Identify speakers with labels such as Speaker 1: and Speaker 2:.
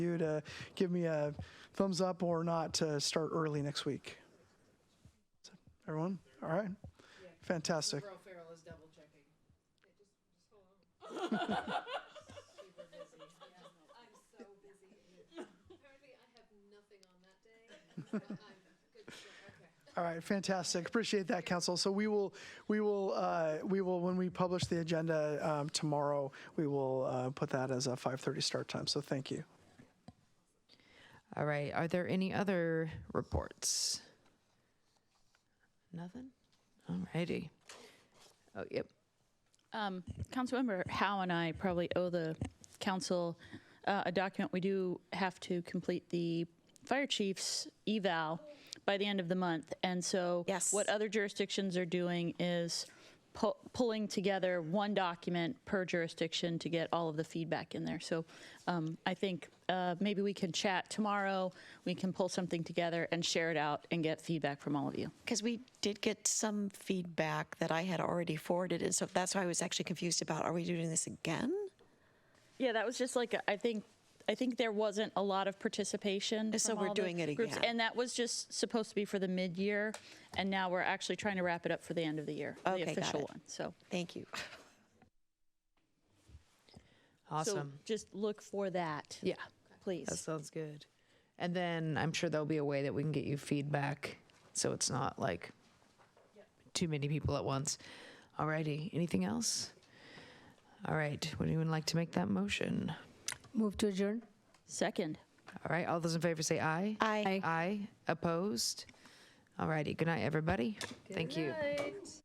Speaker 1: you to give me a thumbs up or not to start early next week. So, Everyone, all right? Fantastic.
Speaker 2: Bro Farrell is double checking.
Speaker 3: I'm so busy. Apparently, I have nothing on that day. so I'm good to go. Okay.
Speaker 1: All right, fantastic. Appreciate that, council. So we will, we will, uh, we will, when we publish the agenda um, tomorrow, we will uh, put that as a 5:30 start time. So thank you.
Speaker 4: All right. Are there any other reports? Nothing? All righty. Oh, yep.
Speaker 5: Um, Councilmember Howe and I probably owe the council uh, a document. We do have to complete the fire chief's eval by the end of the month. And so
Speaker 6: Yes.
Speaker 5: what other jurisdictions are doing is pu- pulling together one document per jurisdiction to get all of the feedback in there. So um, I think uh, maybe we can chat tomorrow. We can pull something together and share it out and get feedback from all of you.
Speaker 6: Because we did get some feedback that I had already forwarded, and so that's why I was actually confused about, are we doing this again?
Speaker 5: Yeah, that was just like I think I think there wasn't a lot of participation.
Speaker 6: So
Speaker 5: from
Speaker 6: we're
Speaker 5: all the
Speaker 6: doing it
Speaker 5: groups,
Speaker 6: again.
Speaker 5: and that was just supposed to be for the mid-year, and now we're actually trying to wrap it up for the end of the year,
Speaker 6: Okay,
Speaker 5: the
Speaker 6: got
Speaker 5: official
Speaker 6: it.
Speaker 5: one. So
Speaker 6: Thank you.
Speaker 5: so
Speaker 4: Awesome.
Speaker 5: just look for that.
Speaker 4: yeah.
Speaker 5: please.
Speaker 4: That sounds good. And then I'm sure there'll be a way that we can get you feedback so it's not like too many people at once. All righty. Anything else? All right. Would anyone like to make that motion?
Speaker 7: Move to adjourn.
Speaker 5: Second.
Speaker 4: All right. All those in favor say aye.
Speaker 6: I.
Speaker 4: Aye. Opposed? All righty. Good night, everybody. Thank you.